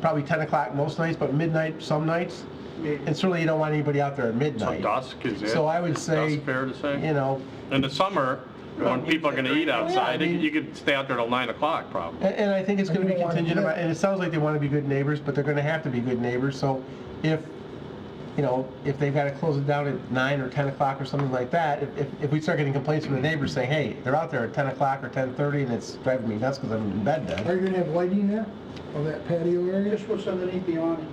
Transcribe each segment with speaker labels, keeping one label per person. Speaker 1: probably 10 o'clock most nights, but midnight some nights.
Speaker 2: Mm.
Speaker 1: And certainly you don't want anybody out there at
Speaker 3: So
Speaker 1: midnight.
Speaker 3: dusk, is it?
Speaker 1: So I would
Speaker 3: is
Speaker 1: say,
Speaker 3: dusk fair to
Speaker 1: You
Speaker 3: say?
Speaker 1: know,
Speaker 3: In the summer, when people are gonna eat outside,
Speaker 1: I mean-
Speaker 3: you could stay out there till nine o'clock probably.
Speaker 1: And, and I think it's gonna be
Speaker 2: don't wanna do
Speaker 1: contingent
Speaker 2: that.
Speaker 1: about, and it sounds like they wanna be good neighbors, but they're gonna have to be good neighbors, so if, you know, if they've gotta close it down at nine or ten o'clock or something like that, if- if, if we start getting complaints from the neighbors saying, hey, they're out there at ten o'clock or ten thirty and it's driving me nuts because I'm in bed
Speaker 2: Are
Speaker 1: then.
Speaker 2: you gonna have lighting there, on that patio area?
Speaker 4: Just what's underneath the awning.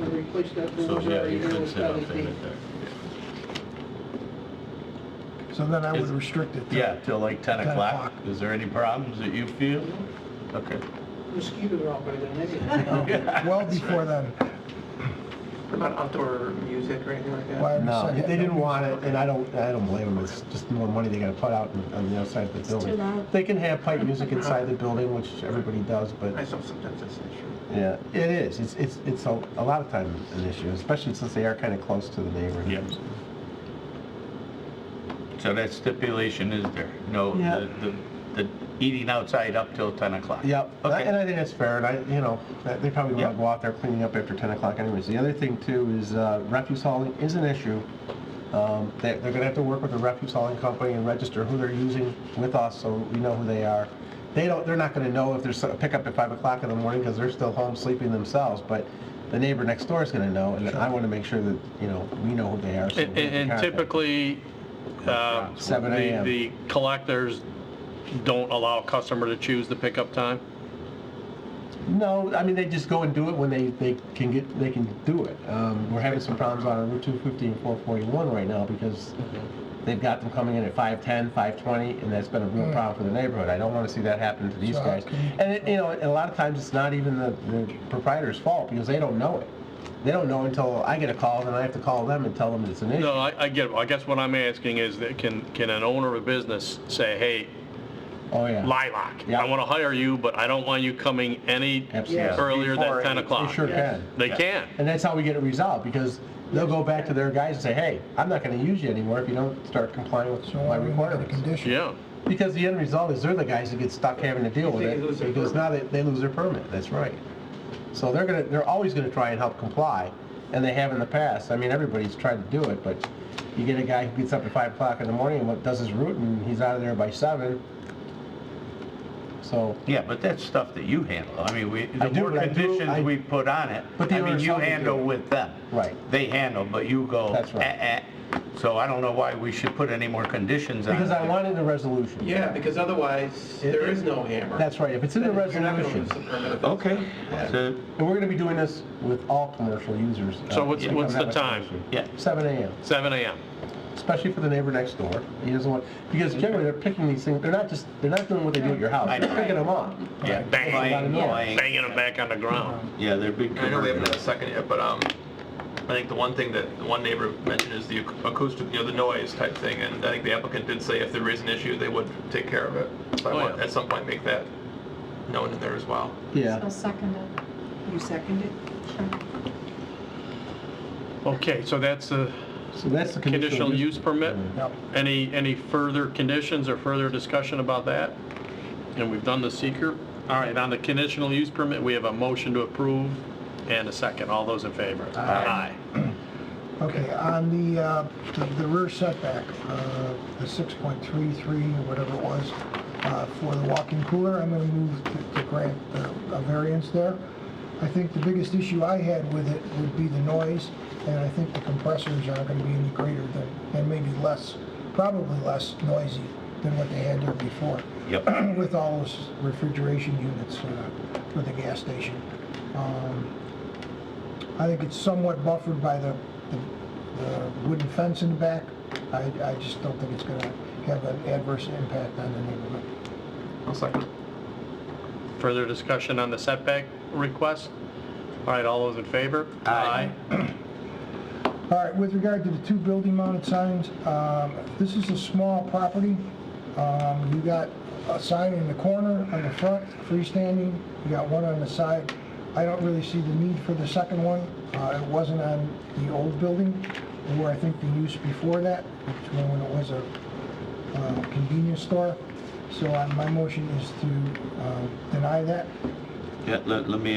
Speaker 4: And replace that
Speaker 5: So,
Speaker 4: door
Speaker 5: yeah,
Speaker 4: area
Speaker 5: you
Speaker 4: here
Speaker 5: could
Speaker 4: with
Speaker 5: sit out there.
Speaker 4: LED.
Speaker 5: right there.
Speaker 2: So then I would
Speaker 5: Is-
Speaker 2: restrict it to...
Speaker 5: Yeah, till like 10
Speaker 2: 10
Speaker 5: o'clock.
Speaker 2: o'clock.
Speaker 5: Is there any problems that you feel? Okay.
Speaker 4: Mosquitoes are out by then, anyway.
Speaker 2: Well before then.
Speaker 6: What about outdoor music or anything like that?
Speaker 2: Why
Speaker 1: No,
Speaker 2: restrict
Speaker 1: they didn't want it, and I don't, I don't blame them, it's just more money they gotta put out on- on the outside of the building.
Speaker 7: loud.
Speaker 1: They can have pipe music inside the building, which everybody does, but.
Speaker 6: I saw sometimes that's an issue.
Speaker 1: Yeah, it is. It's, it's, it's a, a lot of times an issue, especially since they are kind of close to the neighborhood.
Speaker 5: Yep. So that stipulation is there? No,
Speaker 1: Yeah.
Speaker 5: the, the- the eating outside up till 10 o'clock?
Speaker 1: Yep,
Speaker 5: Okay.
Speaker 1: and I think that's fair, and I, you know, that- they probably want
Speaker 5: Yep.
Speaker 1: to go out there cleaning up after 10 o'clock anyways. The other thing too is uh, refuse hauling is an issue. Um, they- They're going to have to work with the refuse hauling company and register who they're using with us, so we know who they are. They don't, they're not going to know if there's a pickup at 5 o'clock in the morning because they're still home sleeping themselves, but the neighbor next door is going to know, and I want to make sure that, you know, we know who they are. so we
Speaker 3: And
Speaker 1: can
Speaker 3: and
Speaker 1: contact them.
Speaker 3: typically, uh,
Speaker 1: Seven
Speaker 3: the
Speaker 1: AM.
Speaker 3: the collectors don't allow a customer to choose the pickup time?
Speaker 1: No, I mean, they just go and do it when they, they can get, they can do it. Um, we're having some problems on Route 250 and 441 right now because they've got them coming in at 510, 520, and that's been a real problem for the neighborhood. I don't want to see that happen to these
Speaker 2: So how
Speaker 1: guys.
Speaker 2: can you-
Speaker 1: And, it- you know, and a lot of times it's not even the the proprietor's fault because they don't know it. They don't know until I get a call, then I have to call them and tell them it's an issue.
Speaker 3: No, I I get, it. I guess what I'm asking is that can, can an owner of a business say, hey,
Speaker 1: Oh, yeah.
Speaker 3: Lilac,
Speaker 1: Yeah.
Speaker 3: I want to hire you, but I don't want you coming any
Speaker 1: Absolutely.
Speaker 3: earlier
Speaker 5: Before
Speaker 3: than 10
Speaker 5: eight.
Speaker 3: o'clock?
Speaker 1: They sure
Speaker 4: Yes.
Speaker 1: can.
Speaker 3: They can.
Speaker 1: And that's how we get it resolved, because they'll go back to their guys and say, hey, I'm not gonna use you anymore if you don't start complying with
Speaker 2: So
Speaker 1: my
Speaker 2: why we want a
Speaker 1: requirements.
Speaker 2: condition?
Speaker 3: Yeah.
Speaker 1: Because the end result is they're the guys that get stuck having to deal with
Speaker 6: They lose
Speaker 1: it,
Speaker 6: their
Speaker 1: because now they, they lose their permit, that's right. So they're gonna, they're always gonna try and help comply, and they have in the past, I mean, everybody's tried to do it, but you get a guy who gets up at five o'clock in the morning and what- does his route, and he's out of there by seven. So,
Speaker 5: Yeah, but that's stuff that you handle. I mean, we,
Speaker 1: I
Speaker 5: the
Speaker 1: do,
Speaker 5: more
Speaker 1: but I do- I-
Speaker 5: conditions we put on it,
Speaker 1: But the
Speaker 5: I mean,
Speaker 1: owners
Speaker 5: you
Speaker 1: help me do
Speaker 5: handle
Speaker 1: it.
Speaker 5: with them.
Speaker 1: Right.
Speaker 5: They handle, but you go,
Speaker 1: That's
Speaker 5: eh,
Speaker 1: right.
Speaker 5: eh. So I don't know why we should put any more conditions on it.
Speaker 1: because I wanted a resolution.
Speaker 6: Yeah, because otherwise,
Speaker 1: It-
Speaker 6: there is no hammer.
Speaker 1: That's right, if it's in the
Speaker 6: You're not gonna
Speaker 1: resolution.
Speaker 6: lose the permit if it's-
Speaker 5: Okay, so,
Speaker 1: And we're gonna be doing this with all commercial users.
Speaker 3: So
Speaker 1: uh,
Speaker 3: what's-
Speaker 1: if it
Speaker 3: what's
Speaker 1: comes
Speaker 3: the
Speaker 1: out with
Speaker 3: time?
Speaker 5: yeah.
Speaker 1: Seven AM,
Speaker 3: Seven AM.
Speaker 1: especially for the neighbor next door. He doesn't want, because generally they're picking these things, they're not just, they're not doing what they do at your house,
Speaker 5: I
Speaker 1: they're
Speaker 5: know.
Speaker 1: picking them up.
Speaker 5: Yeah,
Speaker 3: Bang,
Speaker 5: bang,
Speaker 1: yeah.
Speaker 5: bang.
Speaker 3: Banging them back on the ground.
Speaker 5: Yeah, they're big.
Speaker 8: I know we haven't had a
Speaker 5: commercials.
Speaker 8: second yet, but um, I think the one thing that the one neighbor mentioned is the ac- acoustic, you know, the noise type thing, and I think the applicant did say if there is an issue, they would take care of it. So I
Speaker 3: Oh,
Speaker 8: want,
Speaker 3: yeah.
Speaker 8: at some point, make that known in there as well.
Speaker 1: Yeah.
Speaker 7: So second it.
Speaker 9: You seconded?
Speaker 3: Okay, so that's a
Speaker 1: So that's the
Speaker 3: conditional use permit?
Speaker 1: Yep.
Speaker 3: Any, any further conditions or further discussion about that? And we've done the seeker. All right, on the conditional use permit, we have a motion to approve and a second. All those in favor? Aye.
Speaker 2: Okay, on the, uh, the- the rear setback, uh, the 6.33, or whatever it was, uh, for the walk-in cooler, I'm gonna move to- to grant uh, a variance there. I think the biggest issue I had with it would be the noise, and I think the compressors aren't gonna be any greater than, and maybe less, probably less noisy than what they had there before.
Speaker 5: Yep.
Speaker 2: With all those refrigeration units uh, for the gas station. Um, I think it's somewhat buffered by the, the- the wooden fence in the back. I, I just don't think it's gonna have an adverse impact on the neighborhood.
Speaker 8: One second.
Speaker 3: Further discussion on the setback request? All right, all those in favor?
Speaker 5: Aye.
Speaker 2: All right, with regard to the two building mounted signs, um, this is a small property. Um, You got a sign in the corner on the front, freestanding, you got one on the side. I don't really see the need for the second one. Uh, It wasn't on the old building, or I think the use before that, which was when it was a uh, convenience store. So uh, my motion is to uh, deny that.
Speaker 5: Yeah, let, let me